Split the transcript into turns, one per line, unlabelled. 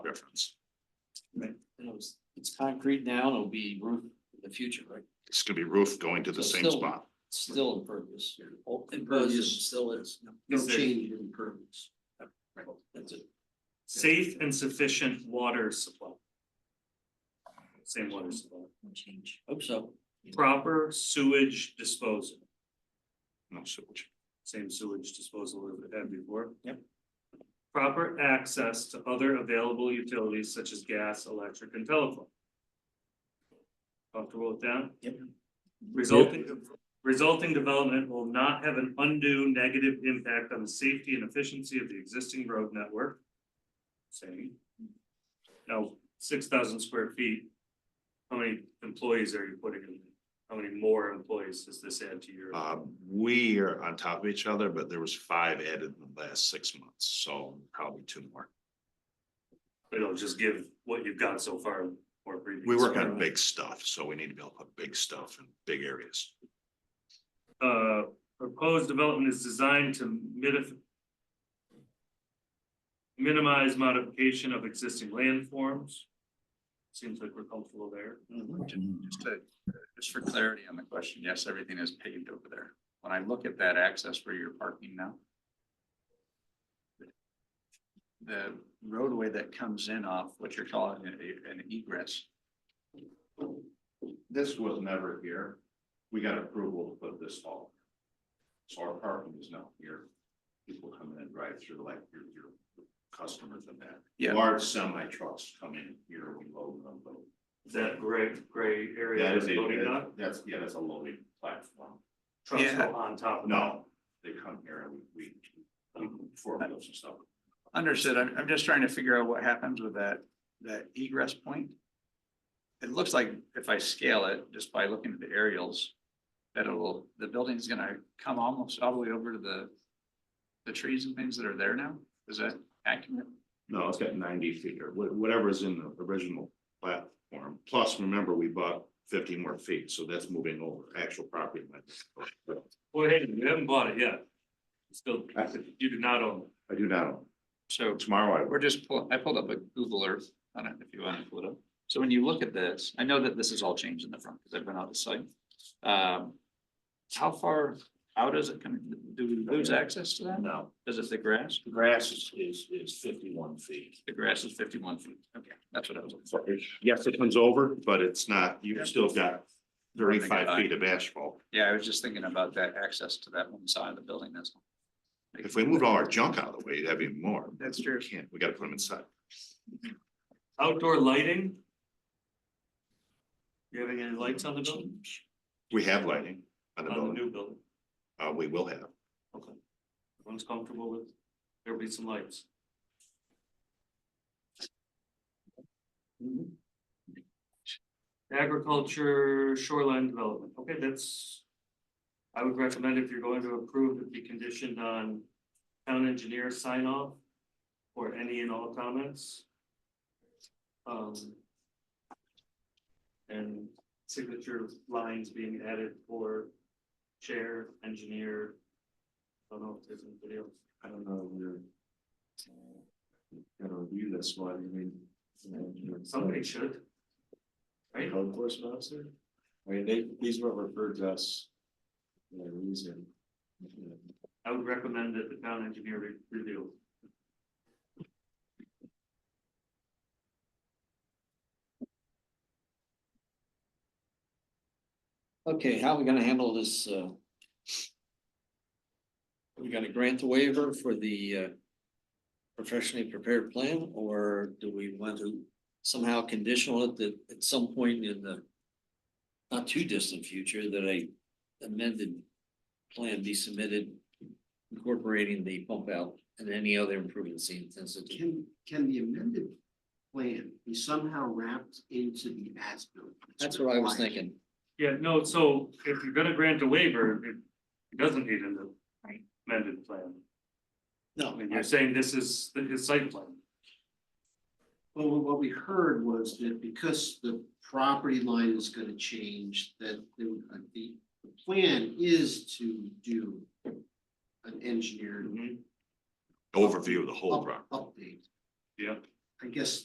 difference.
And it was, it's concrete now and it'll be roof in the future, right?
It's gonna be roof going to the
So
same
still-
spot.
It's Still impervious. Oh,
Impervious.
Still is.
Is there-
in impervious. That's it.
Safe and sufficient water supply. Same water supply.
Change. Hope so.
Proper sewage disposal,
No sewage.
same sewage disposal as we had before.
Yep.
Proper access to other available utilities such as gas, electric and telephone. Comfortable with that?
Yep.
Resulting, resulting development will not have an undue negative impact on the safety and efficiency of the existing road network. Same. Now, six thousand square feet. How many employees are you putting in? How many more employees does this add to your?
Uh, we are on top of each other, but there was five added in the last six months, so probably two more.
It'll just give what you've got so far more previous.
We work on big stuff, so we need to be able to put big stuff in big areas.
Uh, proposed development is designed to mitif- minimize modification of existing landforms. Seems like we're comfortable there.
Mm-hmm.
Just to, just for clarity on the question, yes, everything is paved over there. When I look at that access where you're parking now. The roadway that comes in off what you're calling an an egress,
This was never here. We got approval to put this all. So our parking is not here. People come in and drive through like your, your customers and that.
Yeah.
Large semi trucks come in here, we load them, but
Is that gray, gray area?
That is
that's loading
a,
dock?
that's, yeah, that's a loading platform.
Trucks
Yeah.
go on top of that.
No, they come here and we, we, four wheels and stuff.
understood, I'm, I'm just trying to figure out what happens with that, that egress point. It looks like if I scale it, just by looking at the aerials, that it'll, the building's gonna come almost all the way over to the. The trees and things that are there now, is that accurate?
No, it's got ninety feet or wha- whatever is in the original platform. Plus, remember, we bought fifty more feet, so that's moving over actual property. line.
Well, hey, you haven't bought it yet. Still, you do not own it.
I do not, own.
So
tomorrow I
We're just, pull- I pulled up a Google Earth, I don't know if you want to pull it up. So when you look at this, I know that this is all changed in the front because I've been out the site. Um, How far out is it coming? Do we lose access to that?
No,
Is it the grass?
the grass is, is, is fifty-one feet.
The grass is fifty-one feet. Okay, that's what I was looking for.
So it- Yes, it comes over, but it's not, you've still got thirty-five feet of asphalt.
Yeah, I was just thinking about that access to that one side of the building. That's. all.
If we moved all our junk out of the way, it'd have even more.
That's true.
We Can't, we gotta put them inside.
Outdoor lighting? You having any lights on the building?
We have lighting on the
On the
building,
new building,
uh, we will have.
everyone's comfortable with, there'll be some lights. Agriculture shoreline development, okay, that's. I would recommend if you're going to approve, it be conditioned on town engineer sign off. Or any and all comments. Um. And signature lines being added for chair, engineer. I don't know if there's anybody else.
I don't know, we're.
uh,
Gonna review this one, I mean. you know,
Somebody should.
a
Right?
Code enforcement officer? I mean, they, these weren't referred to us. for a reason.
I would recommend that the town engineer re- review.
Okay, how are we gonna handle this, uh? Are we gonna grant the waiver for the, uh, professionally prepared plan, or do we want to somehow conditional it that at some point in the not too distant future that a amended plan be submitted incorporating the pump out and any other improvements he intends to do?
Can, can the amended plan be somehow wrapped into the as-built?
That's what I was
required?
thinking.
Yeah, no, so if you're gonna grant a waiver, it it doesn't need an amended plan.
No,
I mean, you're saying this is the- his site plan.
well, what- what we heard was that because the property line is gonna change, that the, uh, the, the plan is to do an
Mm-hmm.
engineered
Overview of the whole
up-
property.
update.
Yeah.
I guess